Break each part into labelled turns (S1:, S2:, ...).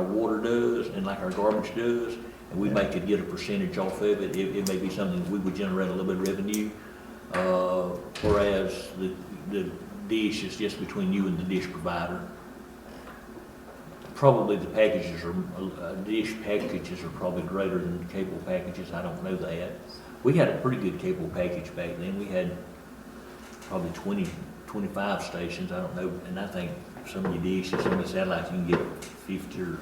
S1: water does and like our garbage does, and we may could get a percentage off of it. It, it may be something that we would generate a little bit of revenue. Uh, whereas the, the dish is just between you and the dish provider. Probably the packages are, uh, dish packages are probably greater than cable packages. I don't know that. We had a pretty good cable package back then. We had probably 20, 25 stations, I don't know, and I think some of the dishes, some of the satellites, you can get 50 or,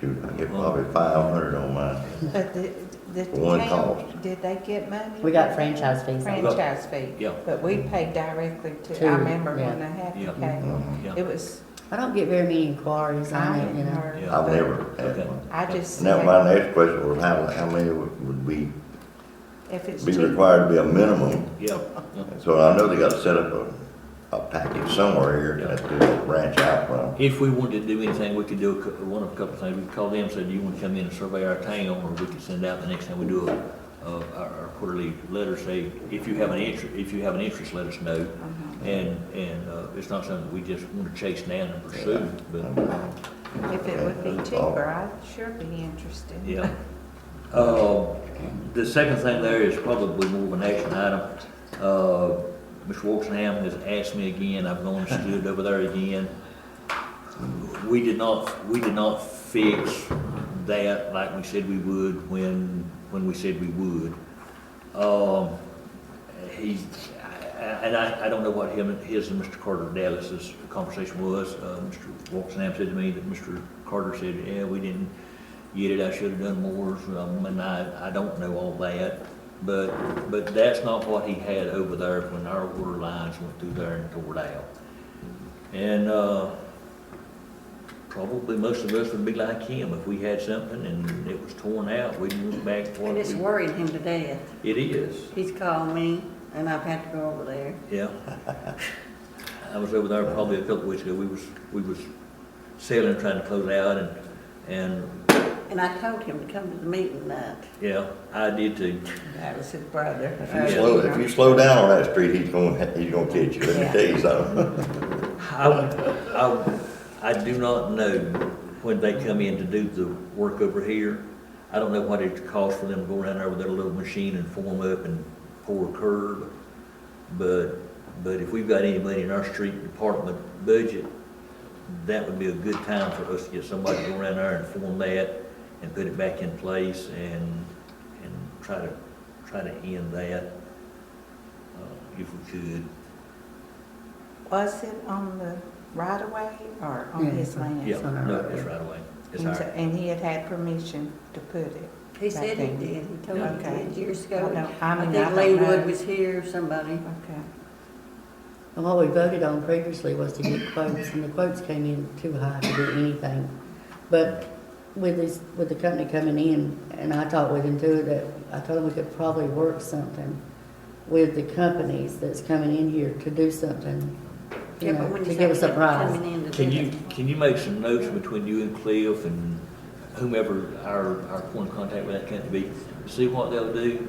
S2: Shoot, I get probably five hundred on mine.
S3: But the, the
S2: For one
S3: town,
S2: cost.
S3: did they get money?
S4: We got franchise fees.
S3: Franchise fee.
S1: Yeah.
S3: But we paid directly to, I
S4: To,
S3: remember when
S4: yeah.
S3: they had
S1: Yeah.
S3: the cable.
S2: Mhm.
S1: yeah.
S3: It was,
S4: I don't get very many inquiries
S3: I
S4: on it, you
S3: hadn't
S4: know.
S3: heard.
S1: Yeah.
S2: I've never had
S1: Okay.
S2: one.
S3: I just
S2: Now, my
S3: said,
S2: next question was how, how many would would be,
S3: if it's
S2: be
S3: cheap,
S2: required to be a minimum?
S1: Yeah,
S2: So I know they gotta set up a, a package somewhere here at the ranch out front.
S1: If we wanted to do anything, we could do a cou- one of a couple of things. We could call them, say, do you want to come in and survey our town? Or we could send out the next time we do a, a- our our quarterly letter, say, if you have an interest, if you have an interest, let us know.
S3: uh-huh,
S1: And, and uh, it's not something that we just want to chase down and pursue, but,
S2: uh,
S3: if it would be cheaper, I'd sure be interested.
S1: yeah. Uh, The second thing there is probably more of an action item. Uh, Mr. Wolfenham has asked me again, I've gone and stood over there again. We did not, we did not fix that like we said we would when, when we said we would. Um, He, I- I- and I, I don't know what him, and- his and Mr. Carter Dallas's conversation was. Uh, Mr. Walksnam said to me that Mr. Carter said, yeah, we didn't get it, I should have done more, um, and I, I don't know all that. But, but that's not what he had over there when our water lines went through there and tore down. And, uh, probably most of us would be like him, if we had something and it was torn out, we'd move back. what
S5: And it's
S1: we-
S5: worried him to death.
S1: It is.
S5: He's called me, and I've had to go over there.
S1: Yeah. I was over there probably a couple weeks ago. We was, we was selling, trying to close out and, and,
S5: And I told him to come to the meeting that,
S1: yeah, I did too.
S3: That was his brother.
S4: Oh,
S2: If
S3: Uh,
S2: you slow, if you slow down on that street, he's gonna, he's gonna catch you, let me tell you something.
S1: I, I, I do not know when they come in to do the work over here. I don't know what it costs for them to go around there with their little machine and form up and pour a curb. But, but if we've got any money in our street department budget, that would be a good time for us to get somebody to go around there and form that and put it back in place and, and try to, try to end that, uh, if we could.
S3: Was it on the right of way or on
S4: Yeah.
S3: his land?
S1: Yeah,
S4: on our
S1: no,
S4: road.
S1: it's right away. It's
S3: And so-
S1: ours.
S3: and he had had permission to put it.
S5: he said he
S3: Right there.
S5: did, he told me
S3: Okay.
S5: he did years
S3: I don't
S5: ago.
S3: know. I
S5: I
S3: mean,
S5: think
S3: I don't know.
S5: Leewood was here, somebody.
S3: Okay.
S4: And what we voted on previously was to get quotes, and the quotes came in too high to do anything. But with this, with the company coming in, and I talked with him too, that I told him we could probably work something with the companies that's coming in here to do something,
S5: Yeah,
S4: you
S5: but
S4: know,
S5: when
S4: to
S5: you
S4: give us a
S5: say
S4: prize.
S5: coming in to
S1: Can
S5: do
S1: you,
S5: it.
S1: can you make some notes between you and Cliff and whomever our, our point of contact with that company be? See what they'll do,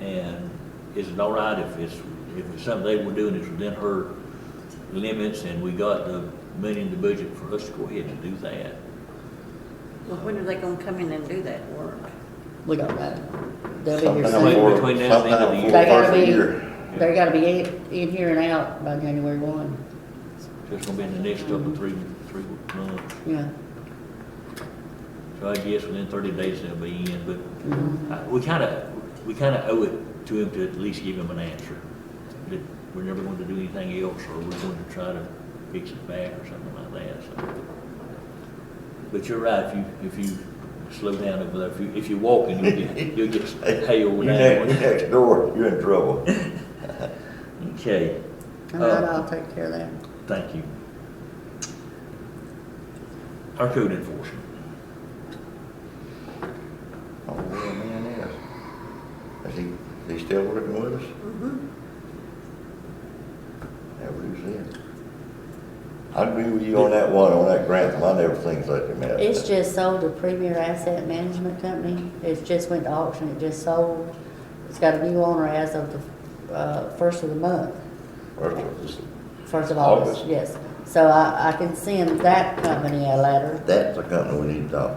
S1: and is it all right if it's, if it's something they were doing is within her limits, and we got the money in the budget for us to go ahead and do that?
S5: Well, when are they gonna come in and do that work?
S4: We don't know. They'll be here
S2: Sometime
S4: soon.
S1: Something
S2: before,
S1: between now and the end of the
S2: sometime
S1: year.
S2: before
S4: They
S2: first
S4: gotta
S2: of the year.
S4: be, they gotta be in, in here and out by January one,
S1: Just gonna be in the next couple, three, three months,
S4: yeah.
S1: so I guess within thirty days they'll be in, but
S4: Mm-hmm.
S1: uh, we kinda, we kinda owe it to him to at least give him an answer. That we're never going to do anything else, or we're going to try to fix it back or something like that, so. But you're right, if you, if you slow down over there, if you, if you're walking, you'll get, you'll get
S2: You
S1: hailed
S2: next, you
S1: down.
S2: next door, you're in trouble.
S1: Okay,
S4: All right, I'll take care of that.
S1: thank you. Our code enforcement.
S2: Oh, where the man is. Is he, is he still working with us?
S5: Mhm.
S2: That what he said. I agree with you on that one, on that grant, I never think like that. man.
S4: It's just sold to Premier Asset Management Company. It's just went to auction, it just sold. It's got a new owner as of the, uh, first of the month,
S2: First of all,
S4: first of August,
S2: August.
S4: yes. So I, I can send that company a letter
S2: That's the company we need to talk to.